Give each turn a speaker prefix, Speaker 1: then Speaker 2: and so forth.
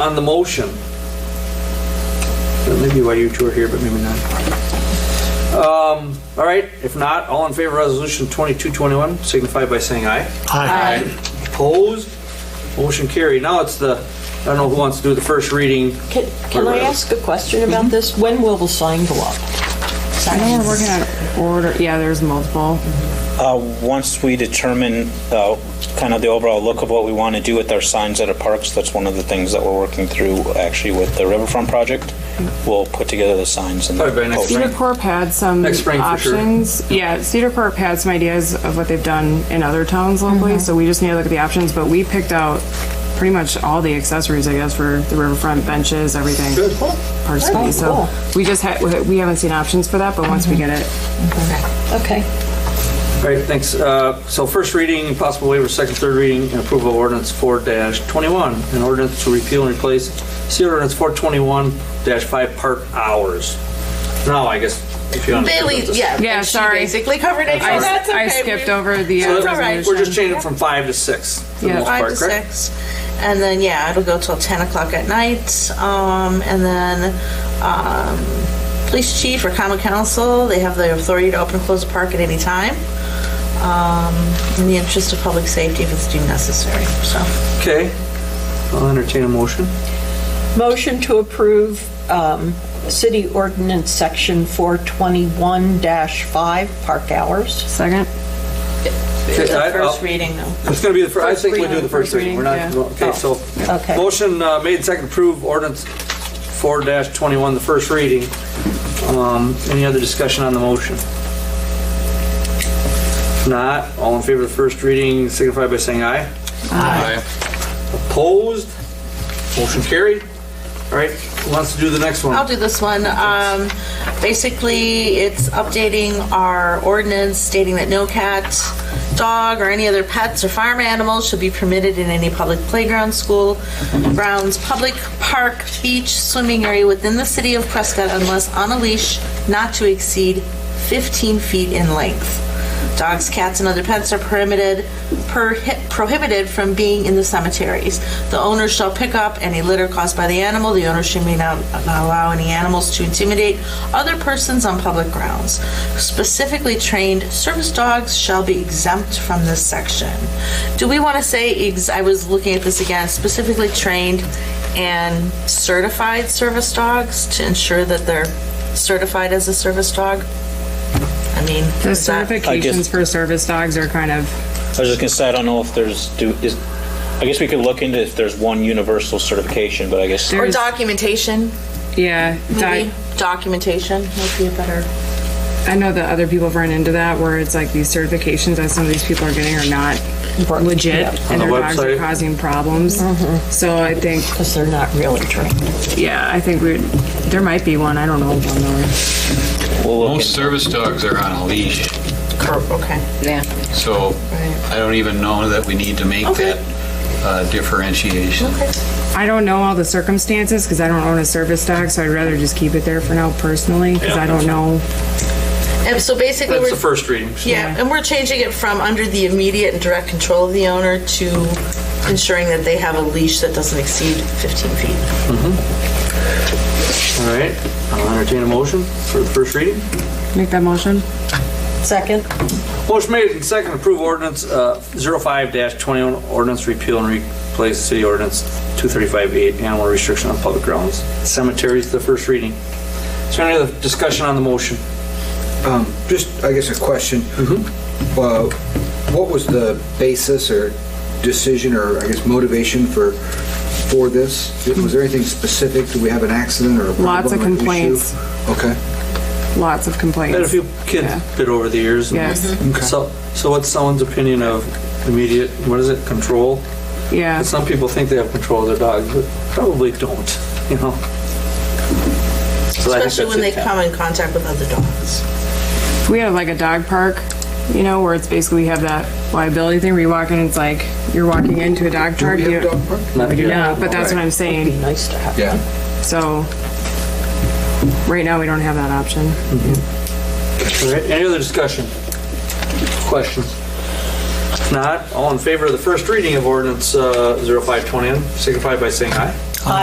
Speaker 1: On the motion, that may be why you two are here, but maybe not. Um, All right, if not, all in favor of Resolution 2221, signify by saying aye.
Speaker 2: Aye.
Speaker 1: Opposed? Motion carried. Now it's the, I don't know who wants to do the first reading.
Speaker 3: Can, can I ask a question about this? When will the sign go up?
Speaker 4: I know we're working on order, yeah, there's multiple.
Speaker 5: Uh, Once we determine uh, kind of the overall look of what we want to do with our signs at our parks, that's one of the things that we're working through actually with the Riverfront Project. We'll put together the signs and.
Speaker 1: Probably by next
Speaker 5: posters.
Speaker 1: spring.
Speaker 4: Cedar Corp had some
Speaker 1: Next spring for sure.
Speaker 4: options. Yeah, Cedar Corp had some ideas of what they've done in other towns locally, so we just need to look at the options, but we picked out pretty much all the accessories, I guess, for the riverfront benches, everything. Personally,
Speaker 3: Alright, cool.
Speaker 4: so we just had, we haven't seen options for that, but once we get it,
Speaker 3: Okay.
Speaker 1: All right, thanks. Uh, So first reading, possible waiver, second, third reading, and approval of ordinance 4-21, an ordinance to repeal and replace see ordinance 421-5 park hours. Now, I guess, if you understand.
Speaker 2: Bailey,
Speaker 1: what this-
Speaker 2: yeah.
Speaker 4: Yeah,
Speaker 2: and she
Speaker 4: sorry.
Speaker 2: basically covered it.
Speaker 4: I,
Speaker 2: so that's okay.
Speaker 4: I skipped
Speaker 2: We-
Speaker 4: over the
Speaker 1: So
Speaker 4: uh,
Speaker 1: that-
Speaker 2: all right.
Speaker 4: resolution.
Speaker 1: We're just changing from five to six, for the
Speaker 4: Yeah.
Speaker 1: most
Speaker 2: Five
Speaker 1: part,
Speaker 2: to
Speaker 1: correct?
Speaker 2: six. And then, yeah, it'll go till 10 o'clock at night. Um, and then, um, police chief or common council, they have the authority to open and close the park at any time. Um, in the interest of public safety if it's deemed necessary, so.
Speaker 1: Okay. I'll entertain a motion.
Speaker 3: Motion to approve um, City Ordinance Section 421-5, park hours.
Speaker 4: Second?
Speaker 1: Okay,
Speaker 2: The
Speaker 1: I- uh, I'll-
Speaker 2: first reading though.
Speaker 1: It's going to be the first, I think we do the
Speaker 4: First
Speaker 1: first reading.
Speaker 4: reading,
Speaker 1: We're not, okay,
Speaker 2: Oh,
Speaker 1: so.
Speaker 3: Okay.
Speaker 1: Motion uh, made, second, approve ordinance 4-21, the first reading. Um, Any other discussion on the motion? If Not, all in favor of the first reading signify by saying aye. Opposed? Motion carried. All right, who wants to do the next one?
Speaker 2: I'll do this one. Um, basically, it's updating our ordinance stating that no cat, dog, or any other pets or farm animals should be permitted in any public playground, school grounds, public park, beach, swimming area within the city of Prescott unless on a leash not to exceed 15 feet in length. Dogs, cats, and other pets are prohibited, perhi- prohibited from being in the cemeteries. The owner shall pick up any litter caused by the animal. The owner should may not, not allow any animals to intimidate other persons on public grounds. Specifically trained service dogs shall be exempt from this section. Do we want to say, ex- I was looking at this again, specifically trained and certified service dogs to ensure that they're certified as a service dog? I mean,
Speaker 4: The
Speaker 2: is that-
Speaker 5: I guess-
Speaker 4: certifications for service dogs are kind of,
Speaker 5: I was just gonna say, I don't know if there's, do, is, I guess we could look into if there's one universal certification, but I guess.
Speaker 4: There-
Speaker 2: Or
Speaker 4: There's-
Speaker 2: documentation,
Speaker 4: yeah. di-
Speaker 2: maybe. Documentation might be a better.
Speaker 4: I know that other people have run into that where it's like these certifications that some of these people are getting are not legit and
Speaker 1: the
Speaker 4: their dogs are
Speaker 1: website.
Speaker 4: causing problems. So I think,
Speaker 3: Because they're not really trained.
Speaker 4: yeah, I think we, there might be one. I don't know. if I'm knowing.
Speaker 5: We'll look
Speaker 6: Most
Speaker 5: into-
Speaker 6: service dogs are on a leash,
Speaker 2: Curve, okay.
Speaker 6: so I don't even know that we need to make
Speaker 2: Okay.
Speaker 6: that uh, differentiation.
Speaker 4: I don't know all the circumstances because I don't own a service dog, so I'd rather just keep it there for now personally because
Speaker 1: Yeah.
Speaker 4: I don't know.
Speaker 2: And so basically,
Speaker 1: That's
Speaker 2: we're
Speaker 1: the first reading. so-
Speaker 2: yeah, and we're changing it from under the immediate and direct control of the owner to ensuring that they have a leash that doesn't exceed 15 feet.
Speaker 1: All right, I'll entertain a motion for the first reading.
Speaker 4: Make that motion.
Speaker 3: Second?
Speaker 1: Motion made and second, approve ordinance uh, 05-21, ordinance repeal and replace city ordinance 235-8, animal restriction on public grounds, cemeteries, the first reading. Is there any other discussion on the motion?
Speaker 7: Just, I guess, a question. Uh, What was the basis or decision or, I guess, motivation for, for this? Was there anything specific? Do we have an accident or a problem?
Speaker 4: Lots of
Speaker 7: or an issue?
Speaker 4: complaints.
Speaker 7: Okay.
Speaker 4: Lots of
Speaker 1: Had a
Speaker 4: complaints.
Speaker 1: few kids bit over the years. Mm-hmm.
Speaker 4: Yes. Mhm.
Speaker 1: So, so what's someone's opinion of immediate, what is it, control?
Speaker 4: Yeah.
Speaker 1: And some people think they have control of their dogs, but probably don't, you know? So I think
Speaker 2: Especially when they
Speaker 1: that's it.
Speaker 2: come in contact with other dogs.
Speaker 4: we have like a dog park, you know, where it's basically we have that liability thing where you walk in, it's like you're walking into a dog
Speaker 7: Do
Speaker 4: park.
Speaker 7: we
Speaker 4: you-
Speaker 7: have a dog park?
Speaker 1: Not here.
Speaker 4: Yeah, but that's what I'm
Speaker 3: Be
Speaker 4: saying.
Speaker 3: nice to have.
Speaker 7: Yeah.
Speaker 4: So, right now, we don't have that option.
Speaker 1: All right, any other discussion? Questions? If Not, all in favor of the first reading of ordinance uh, 0520, signify by saying aye.